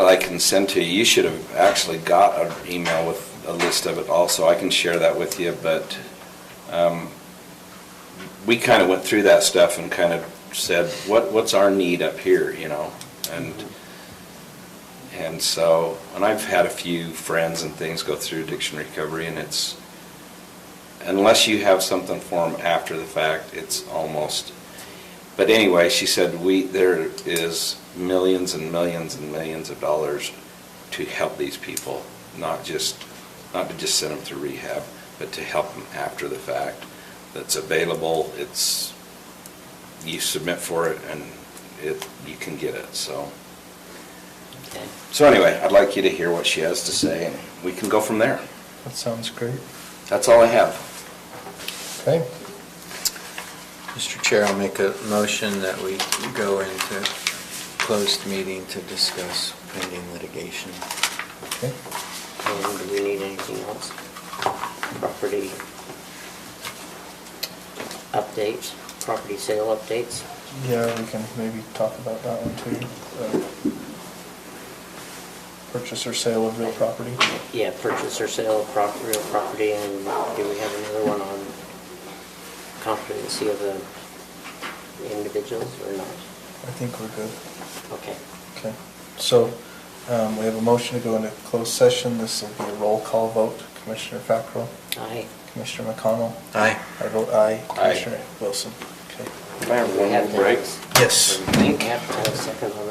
I can send to you. You should have actually got an email with a list of it also. I can share that with you, but um, we kind of went through that stuff and kind of said, what, what's our need up here, you know? And, and so, and I've had a few friends and things go through addiction recovery, and it's, unless you have something for them after the fact, it's almost, but anyway, she said, we, there is millions and millions and millions of dollars to help these people, not just, not to just send them to rehab, but to help them after the fact. That's available, it's, you submit for it and it, you can get it, so. Okay. So anyway, I'd like you to hear what she has to say and we can go from there. That sounds great. That's all I have. Okay. Mr. Chair, I'll make a motion that we go into closed meeting to discuss pending litigation. Okay. Um, Do we need anything else? Property updates, property sale updates? Yeah, we can maybe talk about that one too. Uh, Purchase or sale of real property. Yeah, purchase or sale of prop, real property, and do we have another one on competency of the individuals or not? I think we're good. Okay. Okay. So um, we have a motion to go into closed session. This will be a roll call vote. Commissioner Fackrell, Aye. Commissioner McConnell. Aye. I vote aye. Aye. Commissioner Wilson. Okay. Can I have one We have more break? to- Yes. We have to have a second on